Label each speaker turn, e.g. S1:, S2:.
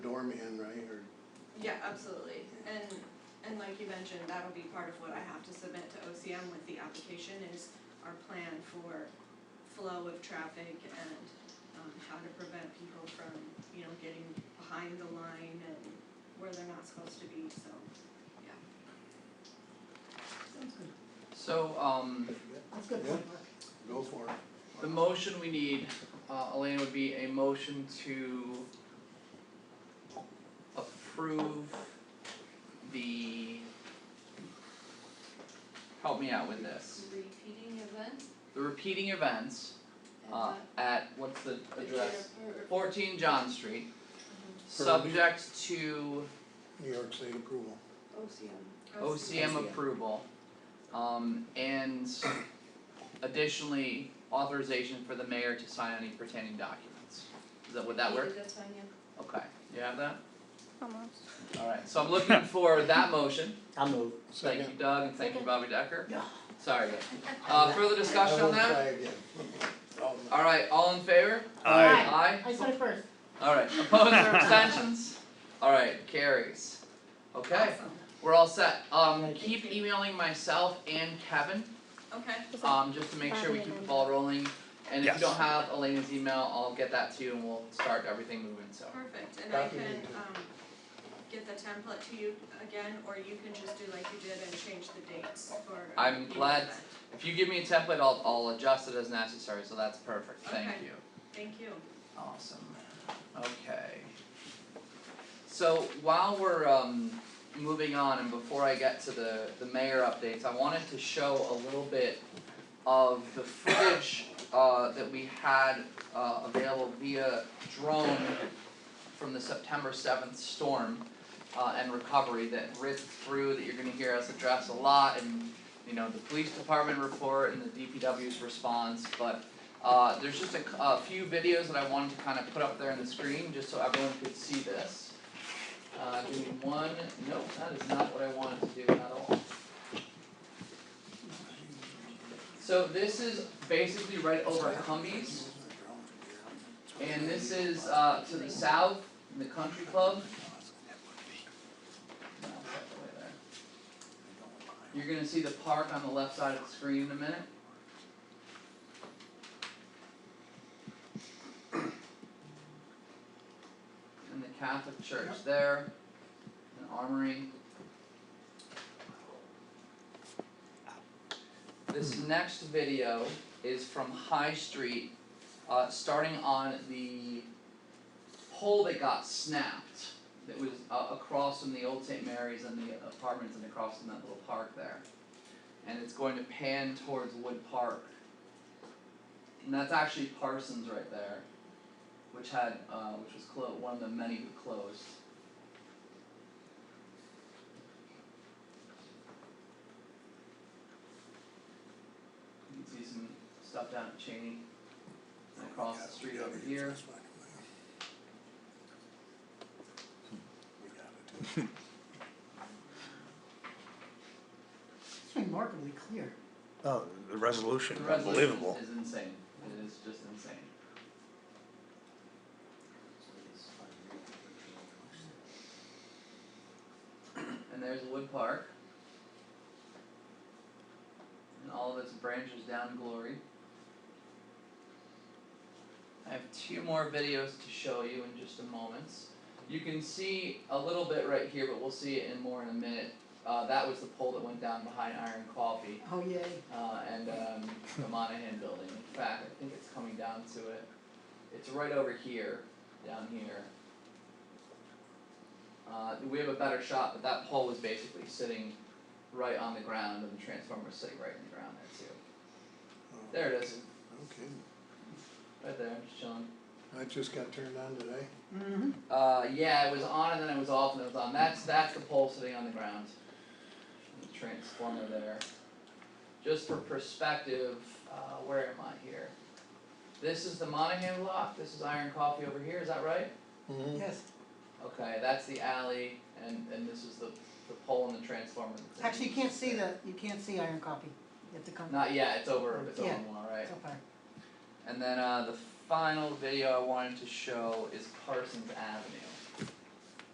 S1: beforehand, right, or?
S2: Yeah, absolutely, and, and like you mentioned, that'll be part of what I have to submit to OCM with the application is our plan for flow of traffic and, um, how to prevent people from, you know, getting behind the line and where they're not supposed to be, so, yeah.
S3: Sounds good.
S4: So, um,
S3: That's good
S1: Yeah.
S3: point, Mark.
S1: Go for it.
S4: the motion we need, uh, Elena, would be a motion to approve the, help me out with this,
S2: Repeating event?
S4: the repeating events, uh, at, what's the address? Fourteen John Street,
S1: For-
S4: subject to
S1: New York State approval.
S5: OCM.
S2: Oh,
S4: OCM
S5: OCM.
S4: approval. Um, and additionally, authorization for the mayor to sign any pertaining documents. Is that, would that work?
S5: That's fine, yeah.
S4: Okay, you have that?
S6: Almost.
S4: Alright, so I'm looking for that motion.
S3: I'll move.
S4: Thank you
S1: Second.
S4: Doug and thank you
S5: Second.
S4: Bobby Decker.
S3: Yeah.
S4: Sorry. Uh, further discussion on
S1: I won't
S4: that?
S1: try again.
S4: Alright, all in favor?
S3: Aye.
S4: Aye?
S3: I said it first.
S4: Alright, opposed or abstentions? Alright, carries. Okay,
S2: Awesome,
S4: we're all set. Um,
S3: Thank
S4: keep emailing myself and Kevin.
S2: okay,
S6: Was that-
S4: Um, just to make sure we keep the ball rolling, and if you
S7: Yes.
S4: don't have Elena's email, I'll get that to you and we'll start everything moving, so.
S2: perfect, and I
S1: Copy me
S2: can,
S1: too.
S2: um, get the template to you again, or you can just do like you did and change the dates for.
S4: I'm
S2: repeating
S4: glad-
S2: event.
S4: If you give me a template, I'll, I'll adjust it as necessary, so that's perfect, thank
S2: Okay.
S4: you.
S2: Thank you.
S4: Awesome, okay. So while we're, um, moving on and before I get to the, the mayor updates, I wanted to show a little bit of the footage, uh, that we had, uh, available via drone from the September seventh storm, uh, and recovery that ripped through, that you're gonna hear us address a lot and, you know, the police department report and the DPW's response, but uh, there's just a, c- a few videos that I wanted to kind of put up there on the screen, just so everyone could see this. Uh, give me one, no, that is not what I wanted to do at all. So this is basically right over Humvees, and this is, uh, to the south, in the country club. No, it's not the way there. You're gonna see the park on the left side of the screen in a minute. And the Catholic Church there, an armory. This next video is from High Street, uh, starting on the pole that got snapped. That was uh, across from the old St. Mary's and the apartments and across from that little park there. And it's going to pan towards Wood Park. And that's actually Parsons right there, which had uh, which was clo- one of the many who closed. You can see some stuff down at Cheney and across the street over here.
S1: We got it.
S3: It's remarkably clear.
S7: Oh, the resolution,
S4: The
S7: unbelievable.
S4: resolution is insane, it is just insane. And there's Wood Park. And all of its branches down glory. I have two more videos to show you in just a moment. You can see a little bit right here, but we'll see it in more in a minute. Uh, that was the pole that went down behind Iron Coffee
S3: Oh, yay.
S4: uh, and um, the Monahan building. In fact, I think it's coming down to it. It's right over here, down here. Uh, we have a better shot, but that pole was basically sitting right on the ground, and the transformer was sitting right in the ground there too. There it is,
S1: Oh, Okay,
S4: right there, just chilling.
S1: that just got turned on today.
S3: Mm-hmm.
S4: Uh, yeah, it was on and then it was off and it was on. That's that's the pole sitting on the ground. The transformer there. Just for perspective, uh, where am I here? This is the Monahan lot. This is Iron Coffee over here. Is that right? Mm-hmm.
S1: Mhm.
S3: Yes.
S4: Okay, that's the alley, and and this is the the pole and the transformer.
S3: Actually, you can't see the, you can't see Iron Copy. You have to come,
S4: Not yet. It's over. It's
S3: Yeah.
S4: over more, right?
S3: so far.
S4: And then uh, the final video I wanted to show is Parsons Avenue.